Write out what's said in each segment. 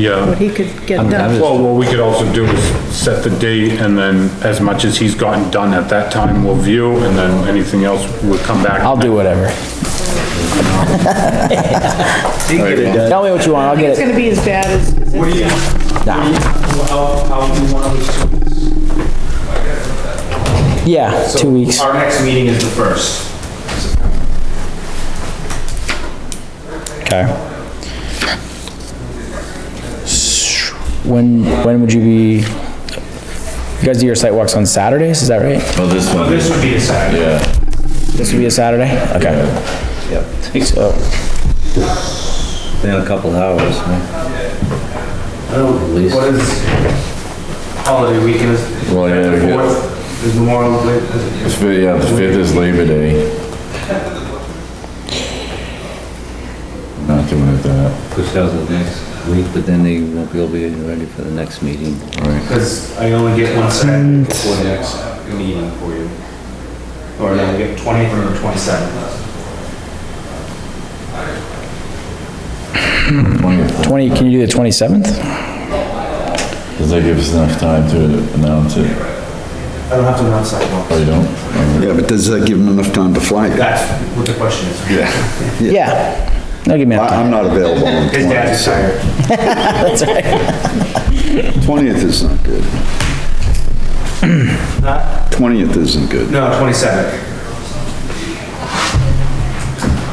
Yeah. what he could get I'm- I'm done. just- Well, what we could also do is set the date and then as much as he's gotten done at that time, we'll view and then anything else will come back. I'll do whatever. Tell me what you want, I'll It's get it. gonna be as bad as, as What do you, it's- what do you, how, how do you want to do this? Yeah, So two weeks. Our next meeting is the first. Okay. When, when would you be, you guys do your site walks on Saturdays, is that right? Well, Oh, this one Oh, This is, would be the second. yeah. This would be a Saturday? Okay. So, In a couple hours, huh? What is holiday weekend? is- Well, yeah, we get- Fourth is Memorial Day. the fifth, yeah, the fifth is Labor Day. Not doing it that, push out the next week, but then they won't be able to be ready for the next meeting. right. Because I only get one Saturday before the next meeting for you. Or I get 20th or 27th. 20th. twenty, can you do the twenty-seventh? Does that give us enough time to announce it? I don't have to announce sidewalks. Or you don't? Yeah, but does that give them enough time to flag? it? That's what the question is. Yeah. Yeah. That'll give me enough I- time. I'm not available on His dad's retired. 20th is not good. 20th isn't good. No, 27th.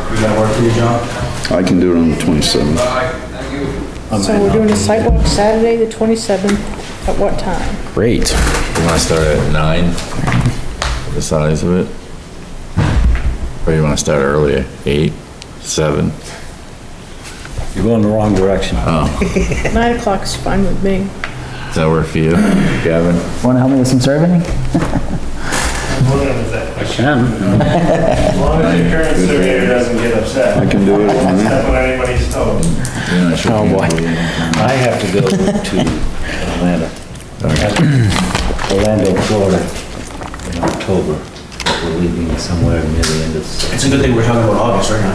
Does that work for you, John? I can do it on the 27th. so we're doing a sidewalk Saturday, the twenty-seventh, at what time? Great. You wanna start at nine? The size of it? Or you wanna start earlier, eight, seven? You're going the wrong direction. Nine o'clock's fine with me. Does that work for you, Gavin? Wanna help me with some surveying? I can. As long as your current surveyor doesn't get upset, I can do it on that. step on anybody's toes. You're not sure Oh, if you boy. can do it. I have to go to Atlanta. Orlando, Florida, in October. We're leaving somewhere near the end of, It's a good thing we're talking about August right now.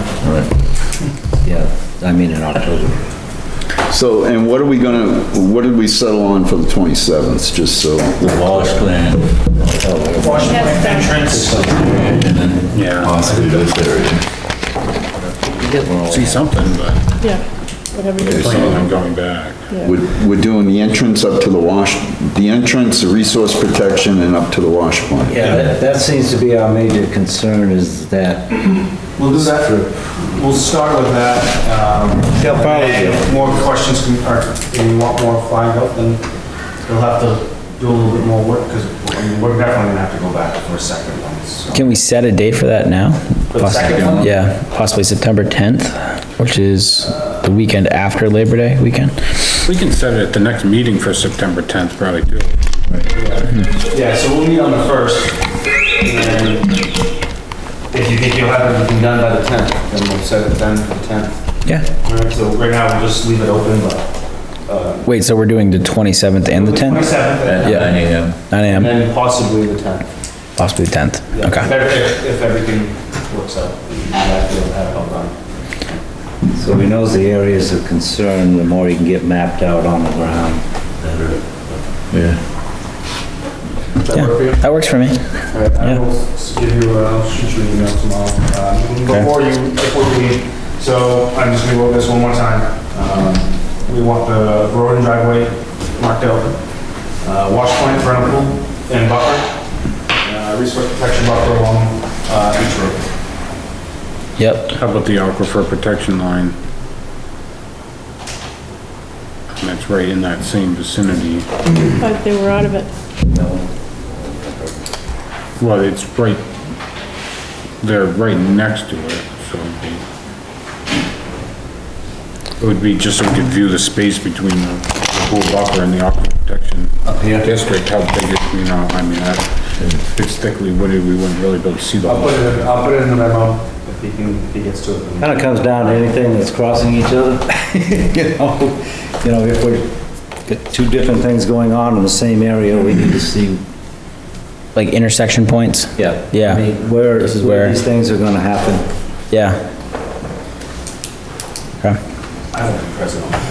yeah, I mean in October. So, and what are we gonna, what did we settle on for the 27th, just so? The Wallace plan. Washington entrance. Yeah. Possibly this area. See something, but Yeah, whatever you it's not I'm going back. We're, we're doing the entrance up to the wash, the entrance, the resource protection, and up to the wash plant. Yeah, that, that seems to be our major concern is that We'll do that. We'll start with that. um, They'll probably do. and More questions can, or if you want more flagged up, then you'll have to do a little bit more work because we're definitely gonna have to go back for a second one. so. Can we set a date for that now? For the second one? Yeah, possibly September tenth, which is the weekend after Labor Day weekend. We can set it at the next meeting for September 10th, probably too. Yeah, so we'll meet on the first. and then If you think you'll have everything done by the 10th, then we'll set it then for the 10th. Yeah. All right, so right now we'll just leave it open, but Wait, so we're doing the twenty-seventh and the tenth? 27th Yeah. Nine AM. Nine and AM, then possibly the 10th. possibly tenth. Yeah, Okay. if every- If, if everything works out, we might be able to have it all done. So he knows the areas of concern, the more he can get mapped out on the ground, better. Yeah. Yeah, that works for me. All right, I will s- give you, uh, I'll shoot you an email tomorrow. Um, Before you, before you leave, so I'm just gonna go over this one more time. Um, We want the road and driveway marked out, uh, wash point, vernal pool, and buffer, uh, resource protection buffer along uh, each road. Yep, How about the aquifer protection line? And that's right in that same vicinity. But they were out of it. Well, it's right, they're right next to it, so it'd be, it would be just so we could view the space between the the pool buffer and the aquifer protection district, how big it, you know, I mean, that, if it's thickly wooded, we wouldn't really be able to see the I'll whole. put it, in- I'll put it in the memo if he can, if he gets to it. Kind of comes down to anything that's crossing each other. You know, you know, if we're, got two different things going on in the same area, we need to see. like intersection points? Yeah. Yeah. I mean, where, This is where where- these things are gonna happen. Yeah. Okay. I won't be present on that.